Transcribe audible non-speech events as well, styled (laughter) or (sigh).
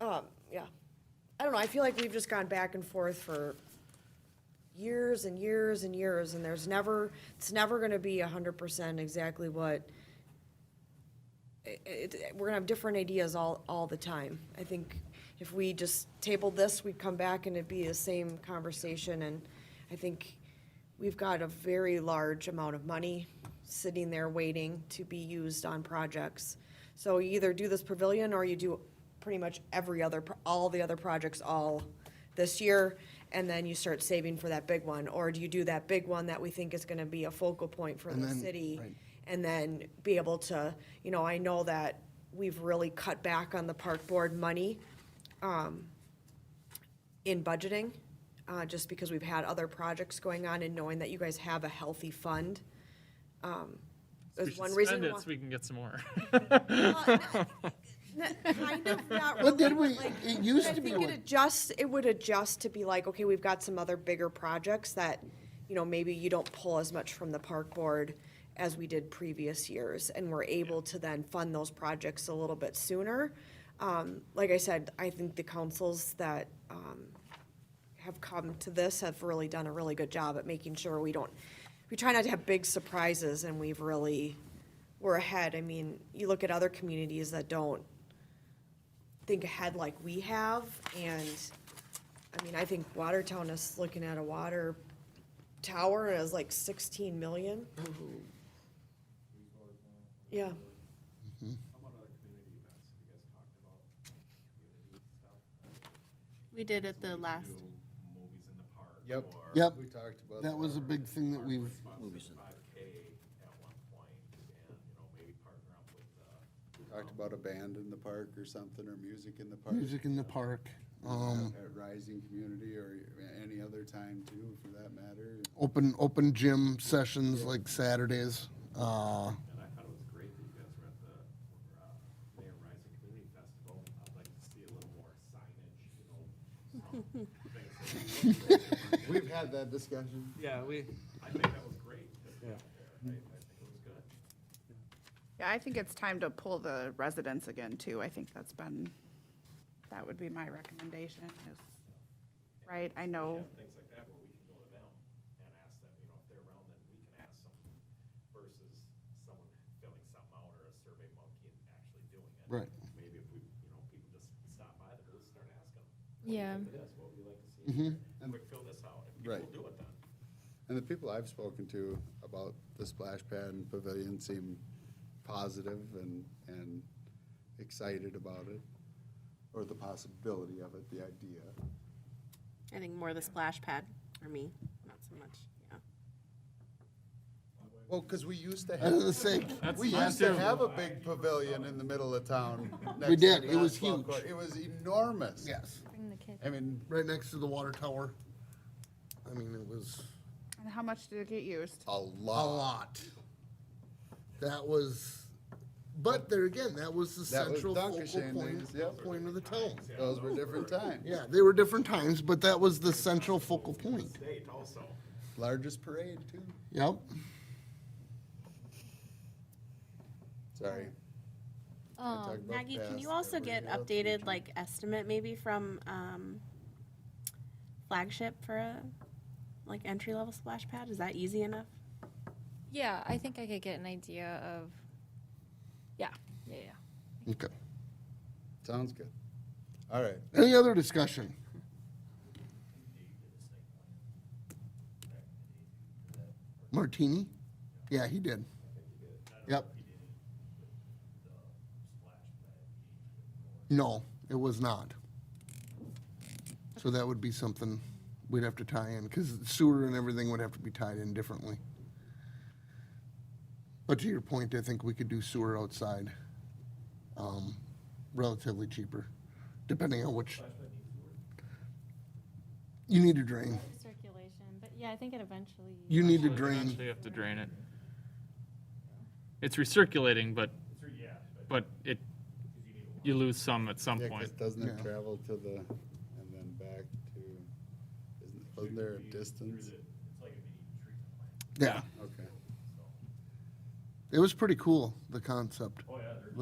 um, yeah. I don't know, I feel like we've just gone back and forth for years and years and years, and there's never, it's never gonna be hundred percent exactly what it- it, we're gonna have different ideas all, all the time. I think if we just tabled this, we'd come back and it'd be the same conversation, and I think we've got a very large amount of money sitting there waiting to be used on projects. So you either do this pavilion, or you do pretty much every other, pro- all the other projects all this year, and then you start saving for that big one, or do you do that big one that we think is gonna be a focal point for And the then- city? right. and then be able to, you know, I know that we've really cut back on the park board money um, in budgeting, uh, just because we've had other projects going on and knowing that you guys have a healthy fund. um, We Is should one spend reason it why. so we can get some (laughs) more. Well, n- n- Kind of, not really. But then we, like- it used I to be, think it one- adjusts, it would adjust to be like, okay, we've got some other bigger projects that, you know, maybe you don't pull as much from the park board as we did previous years, and we're able to then fund those projects a little bit sooner. Um, like I said, I think the councils that, um, have come to this have really done a really good job at making sure we don't, we try not to have big surprises, and we've really, we're ahead. I mean, you look at other communities that don't think ahead like we have, and, I mean, I think Watertown is looking at a water tower as like sixteen million. Yeah, We did at the last, Yep. Yep. We talked about. that was a big thing that we've, Talked about a band in the park or something, or music in the park. music in the park, um, At Rising Community or any other time too, for that matter. open, open gym sessions like Saturdays. Uh, And I thought it was great that you guys were at the uh, Mayor Rising Community Festival. I'd like to see a little more signage, you know. some things that- (laughs) We've had that discussion. Yeah, we. I think that was great. Yeah. I, I think it was good. yeah, I think it's time to pull the residents again, too. I think that's been, that would be my recommendation is, right, I know, Things like that where we can go to them and ask them, you know, if they're around, then we can ask them versus someone filling something out or a survey monkey and actually doing it. Right. Maybe if we, you know, people just stop by the booth, start asking them. Yeah. What do you think of this? What would you like to see? here? Quick, fill this out. And people Right. will do it then. And the people I've spoken to about the splash pad and pavilion seem positive and, and excited about it, or the possibility of it, the idea. I think more the splash pad for me, not so much, yeah. Well, because we used to I was gonna have, say, we used to have a big pavilion in the middle of town. (laughs) next We to the did. It was basketball court. huge. It was enormous. yes, Bring the kids. I mean, right next to the water tower. I mean, it was and how much did it get used? a a lot. lot. That was, but there again, that was the That was central focal Dunkershin days, point, yep. point of the town. Those were different times. Yeah, they were different times, but that was the central focal point. State also. Largest parade too. Yep. Sorry. I talked Um, about Maggie, can you past, also everybody get else, we updated, can- like, estimate maybe from, um, flagship for a, like, entry-level splash pad? Is that easy enough? Yeah, I think I could get an idea of. Yeah, yeah, yeah. Okay. Sounds good. All right. Any other discussion? Martini? Yeah, he did. Yep. No, it was not. So that would be something we'd have to tie in, because sewer and everything would have to be tied in differently. But to your point, I think we could do sewer outside, um, relatively cheaper, depending on which. You need a drain. Circulation, but yeah, I think it eventually. You need to Eventually drain. you have to drain it. It's recirculating, but, but it, you lose some at some Yeah, 'cause point. doesn't it Yeah. travel to the, and then back to, isn't, wasn't there a distance? Yeah, Okay. it was pretty cool, the concept.